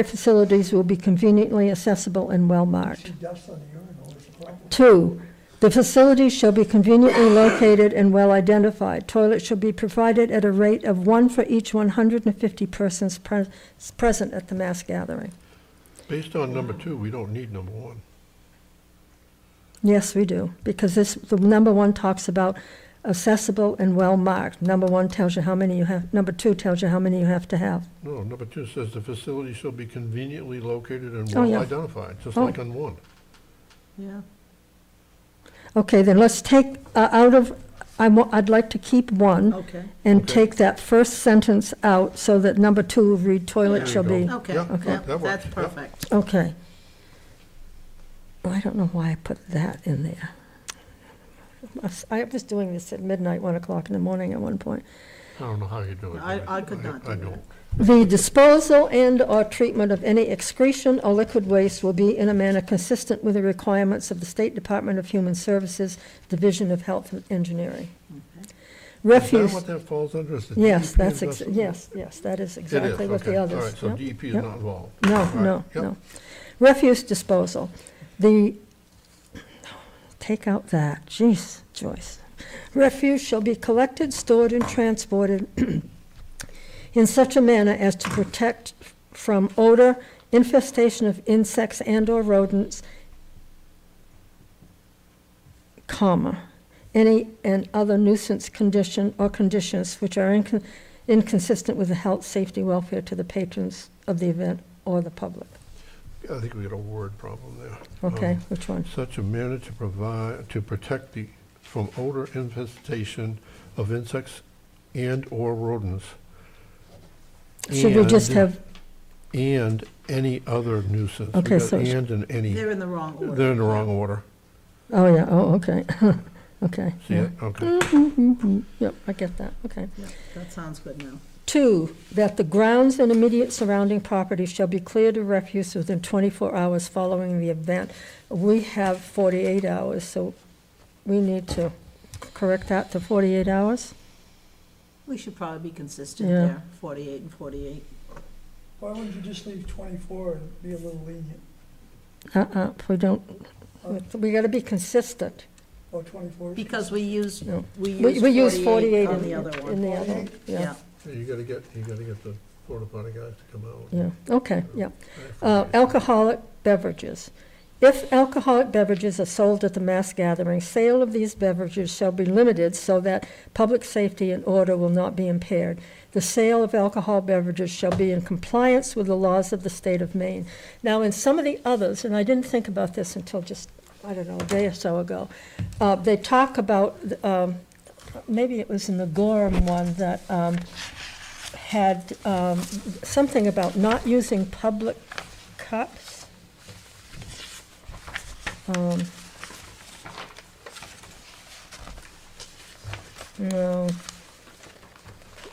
Their facilities will be conveniently accessible and well-marked. See dust on the urinal is a problem. Two, the facilities shall be conveniently located and well-identified. Toilets shall be provided at a rate of one for each 150 persons pres- present at the mass gathering. Based on number two, we don't need number one. Yes, we do, because this, the number one talks about accessible and well-marked. Number one tells you how many you have, number two tells you how many you have to have. No, number two says the facility shall be conveniently located and Oh, yeah. well identified, just Oh. like on one. Yeah. Okay, then let's take uh, out of, I wa- I'd like to keep one Okay, and Okay. take that first sentence out so that number two, read There toilet you shall go. be. okay, Yeah, okay. yeah, that works, that's yeah. perfect. Okay. I don't know why I put that in there. I was- I was doing this at midnight, 1 o'clock in the morning at one point. I don't know how you do it. I- I could not I do don't. The disposal and/or treatment of any excretion or liquid waste will be in a manner consistent with the requirements of the State Department of Human Services, Division of Health and Engineering. Is that Refuse, what that falls under? Is the yes, DEP that's, ex- investment? yes, yes, that is It is, exactly what okay. the others. All right, so yep. DEP is yep. not involved. All No, right, no, yep. no. Refuse disposal, the, take out that, jeez, Joyce. Refuse shall be collected, stored, and transported in such a manner as to protect from odor, infestation of insects and/or rodents, comma, any and other nuisance condition or conditions which are incon- inconsistent with the health, safety, welfare to the patrons of the event or the public. I think we got a word problem there. Okay, Um, which one? Such a manner to provide, to protect the, from odor infestation of insects and/or rodents. Should we just and- have, And any other nuisance. We Okay, got so it's- And and any. They're in the wrong order. They're in the wrong order. oh, yeah, oh, okay, okay. See yeah. it? Okay. Mhm, Yep, I get that, okay. Yeah, That sounds good now. Two, that the grounds and immediate surrounding property shall be cleared of refuse within 24 hours following the event. We have 48 hours, so we need to correct that to 48 hours? We should probably be consistent Yeah. there, forty-eight and forty-eight. Why wouldn't you just leave twenty-four and be a little lenient, Uh-uh, if we don't, we gotta be consistent. or Oh, twenty-four? Because we used, No. we We we use used 48 forty-eight in on the the other in one. the other, one, yeah, Yeah, You gotta get, you gotta get the porta potty guys to come out. yeah, okay, yeah. Uh, Okay. Alcoholic beverages. If alcoholic beverages are sold at the mass gathering, sale of these beverages shall be limited so that public safety and order will not be impaired. The sale of alcohol beverages shall be in compliance with the laws of the state of Maine. Now, in some of the others, and I didn't think about this until just, I don't know, a day or so ago, uh, they talk about, um, maybe it was in the Gorham one that, um, had, um, something about not using public cups. Um, No,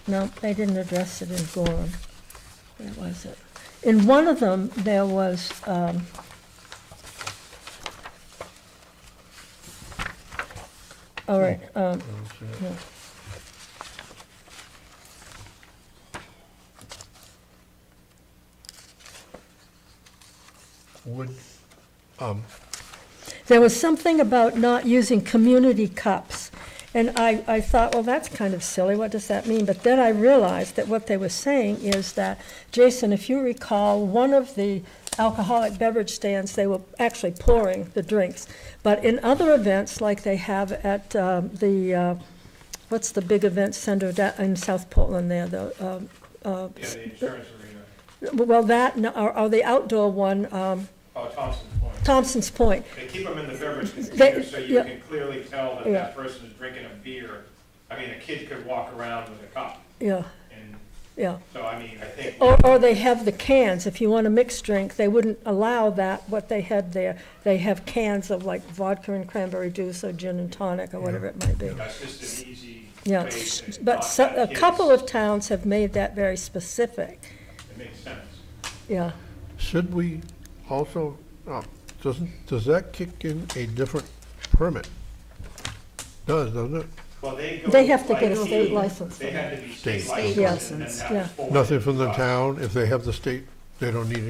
no, they didn't address it in Gorham. Where was it? In one of them, there was, um, all right, um, yeah. Would, um, There was something about not using community cups. And I, I thought, well, that's kind of silly, what does that mean? But then I realized that what they were saying is that, Jason, if you recall, one of the alcoholic beverage stands, they were actually pouring the drinks. But in other events, like they have at um, the, uh, what's the big event center da- in South Portland there, the, um, uh, Yeah, the insurance arena. well, that, no, or or the outdoor one, um, Oh, Thompson's Point. Thompson's Point. They keep them in the beverage They- container, so you yeah. can clearly tell that Yeah. that person is drinking a beer. I mean, a kid could walk around with a cup, Yeah, and yeah. so, I mean, I think. Or, or they have the cans, if you want a mixed drink, they wouldn't allow that, what they had there. They have cans of like vodka and cranberry juice or gin and tonic or whatever it might be. That's just an easy Yeah, way to. but not so- have a kids. couple of towns have made that very specific, It makes sense. yeah. should we also, uh, doesn't, does that kick in a different permit? Does, doesn't it? Well, they go. They have to by get a state deed. license They for have to be state State. licensed, Yes, and then that yeah. was forwarded Nothing from the to us. town, if they have the state, they don't need